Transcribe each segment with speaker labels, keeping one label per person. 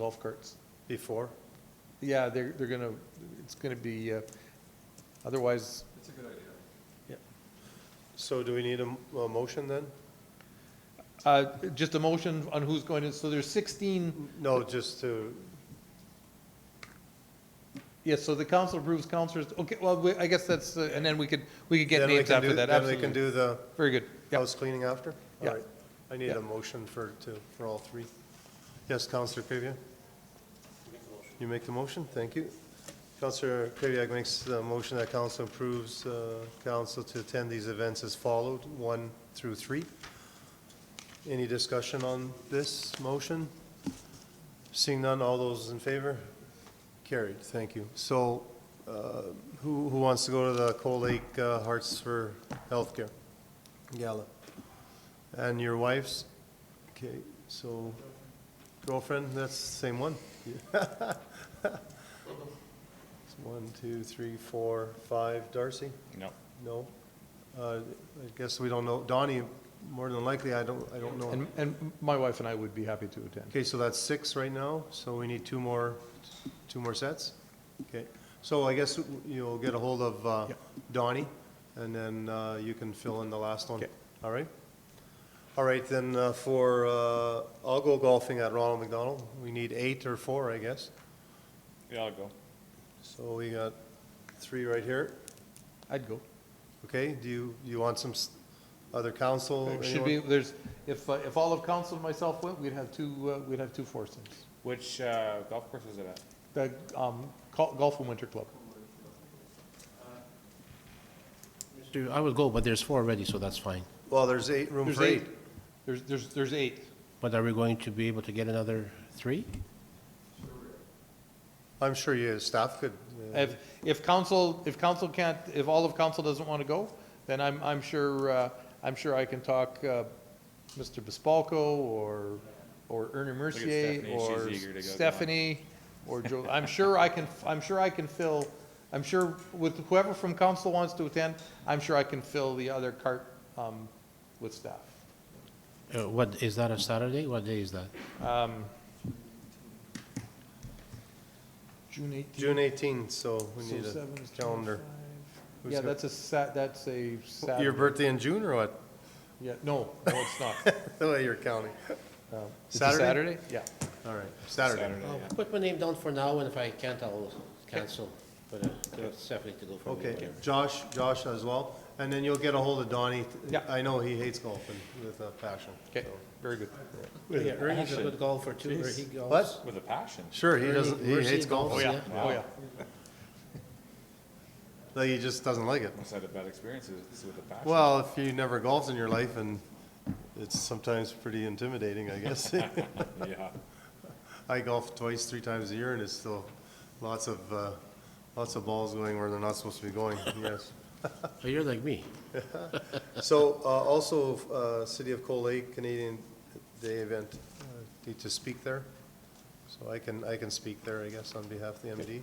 Speaker 1: golf carts before. Yeah, they're, they're gonna, it's gonna be, uh, otherwise,
Speaker 2: It's a good idea.
Speaker 3: So do we need a, m- a motion then?
Speaker 1: uh, just a motion on who's going to, so there's sixteen,
Speaker 3: No, just to,
Speaker 1: yes, so the council approves councilors, okay, well, we- I guess that's, uh, and then we could, we could get
Speaker 3: then we
Speaker 1: names
Speaker 3: can
Speaker 1: after
Speaker 3: do-
Speaker 1: that,
Speaker 3: Then we can
Speaker 1: absolutely.
Speaker 3: do the
Speaker 1: Very good, yeah,
Speaker 3: house cleaning after? All
Speaker 1: Yeah.
Speaker 3: right. I need
Speaker 1: Yeah.
Speaker 3: a motion for, to, for all three. Yes, Counselor Krivia? You make the motion, thank you. Counselor Krivia makes the motion that council approves, uh, council to attend these events as followed, one through three. Any discussion on this motion? Seeing none, all those in favor? Carried, thank you. So, uh, who, who wants to go to the Coal Lake uh, Hearts for Healthcare Gala? And your wife's? Okay, so girlfriend, that's the same one? Yeah. It's One, two, three, four, five, Darcy?
Speaker 4: No.
Speaker 3: No? Uh, I guess we don't know, Donnie, more than likely, I don't, I don't know.
Speaker 1: and, and my wife and I would be happy to attend.
Speaker 3: Okay, so that's six right now, so we need two more, two more sets? Okay, so I guess you'll get a hold of uh,
Speaker 1: Yeah.
Speaker 3: Donnie, and then uh, you can fill in the last one.
Speaker 1: Okay.
Speaker 3: All right? All right, then uh, for, uh, I'll go golfing at Ronald McDonald. We need eight or four, I guess.
Speaker 4: Yeah, I'll go.
Speaker 3: So we got three right here.
Speaker 1: I'd go.
Speaker 3: Okay, do you, you want some s- other council?
Speaker 1: Should be,
Speaker 3: anyone?
Speaker 1: there's, if, uh, if all of council and myself went, we'd have two, uh, we'd have two foursomes.
Speaker 4: Which uh, golf course is it at?
Speaker 1: The, um, Col- Golf and Winter Club.
Speaker 5: Dude, I would go, but there's four already, so that's fine.
Speaker 3: Well, there's eight, room
Speaker 1: There's
Speaker 3: for eight.
Speaker 1: There's, there's, there's eight.
Speaker 5: But are we going to be able to get another three?
Speaker 3: I'm sure your staff could. uh,
Speaker 1: If, if council, if council can't, if all of council doesn't want to go, then I'm, I'm sure, uh, I'm sure I can talk, uh, Mr. Bespalko or, or Ernie Mercier
Speaker 4: Stephanie,
Speaker 1: or
Speaker 4: she's eager to go, go on.
Speaker 1: Stephanie or Joe. I'm sure I can, I'm sure I can fill, I'm sure with whoever from council wants to attend, I'm sure I can fill the other cart, um, with staff.
Speaker 5: Uh, What, is that a Saturday? What day is that?
Speaker 1: Um, June eighteenth.
Speaker 3: June 18th, so we
Speaker 1: So
Speaker 3: need a
Speaker 1: seven is
Speaker 3: calendar.
Speaker 1: 25.
Speaker 3: Who's
Speaker 1: Yeah,
Speaker 3: got-
Speaker 1: that's a Sat, that's a Saturday.
Speaker 3: Your birthday in June or what?
Speaker 1: Yeah, no, no, it's not.
Speaker 3: The way Oh, you're counting.
Speaker 1: Um, it's a
Speaker 3: Saturday?
Speaker 1: Saturday? Yeah.
Speaker 3: All right, Saturday.
Speaker 4: Saturday, yeah.
Speaker 5: I'll put my name down for now, and if I can't, I'll cancel. But uh, it's definitely to go for me.
Speaker 3: Okay, Josh, Josh as well, and then you'll get a hold of Donnie.
Speaker 1: Yeah.
Speaker 3: I know he hates golfing with a passion.
Speaker 1: Okay, very good.
Speaker 5: Yeah, Ernie's a
Speaker 4: Passion.
Speaker 5: good golfer too, where he golfs.
Speaker 3: What?
Speaker 4: With a passion.
Speaker 3: Sure, he
Speaker 5: Ernie-
Speaker 3: doesn't, he
Speaker 5: where's he
Speaker 3: hates golf.
Speaker 5: golf?
Speaker 3: Yeah.
Speaker 5: yeah.
Speaker 1: Oh, yeah.
Speaker 3: Like, He just doesn't like it.
Speaker 4: Must have had a bad experience with with a passion.
Speaker 3: Well, if you never golfed in your life, and it's sometimes pretty intimidating, I guess.
Speaker 4: Yeah.
Speaker 3: I golf twice, three times a year, and it's still lots of, uh, lots of balls going where they're not supposed to be going, yes.
Speaker 5: Oh, You're like me.
Speaker 3: So, uh, also, uh, City of Coal Lake Canadian Day event, uh, need to speak there? So I can, I can speak there, I guess, on behalf of the MD.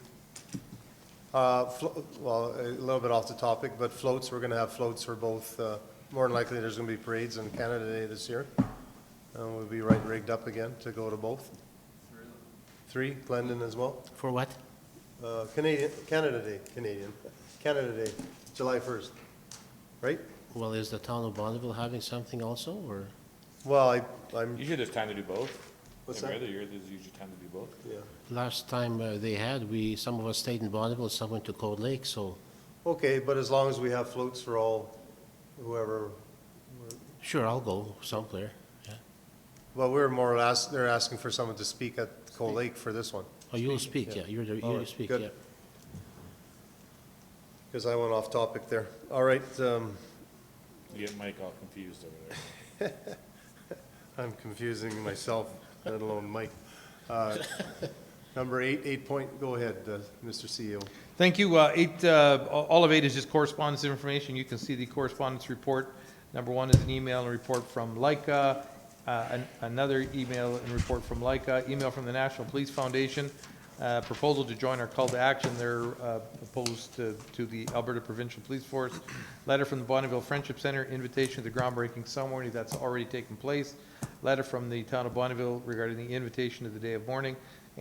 Speaker 3: Uh, flo- Well, a little bit off the topic, but floats, we're going to have floats for both, uh, more than likely, there's going to be parades on Canada Day this year. And we'll be right rigged up again to go to both. Three, Glendon as well.
Speaker 5: For what?
Speaker 3: Uh, Canadian, Canada Day, Canadian, Canada Day, July 1st, right?
Speaker 5: Well, is the town of Bonneville having something also, or?
Speaker 3: Well, I, I'm,
Speaker 4: Usually there's time to do both.
Speaker 3: What's
Speaker 4: Every
Speaker 3: that?
Speaker 4: other year, there's usually time to do both.
Speaker 3: yeah.
Speaker 5: Last time uh, they had, we, some of us stayed in Bonneville, some went to Cold Lake, so
Speaker 3: Okay, but as long as we have floats for all, whoever,
Speaker 5: sure, I'll go somewhere, yeah.
Speaker 3: well, we're more or less, they're asking for someone to speak at Coal Lake for this one,
Speaker 5: Oh, you'll speak, yeah, you're, the
Speaker 3: All
Speaker 5: you
Speaker 3: right,
Speaker 5: speak,
Speaker 3: good.
Speaker 5: yeah.
Speaker 3: because I went off topic there. All right, um,
Speaker 4: You get Mike all confused over there.
Speaker 3: I'm confusing myself, let alone Mike. Uh, Number eight, eight point, go ahead, uh, Mr. CEO.
Speaker 1: Thank you. Uh, Eight, uh, a- all of eight is just correspondence information. You can see the correspondence report. Number one is an email and report from Leica, uh, an- another email and report from Leica, email from the National Police Foundation, uh, proposal to join our call to action. They're uh, opposed to to the Alberta Provincial Police Force. Letter from the Bonneville Friendship Center, invitation to the groundbreaking ceremony that's already taken place. Letter from the town of Bonneville regarding the invitation to the day of mourning.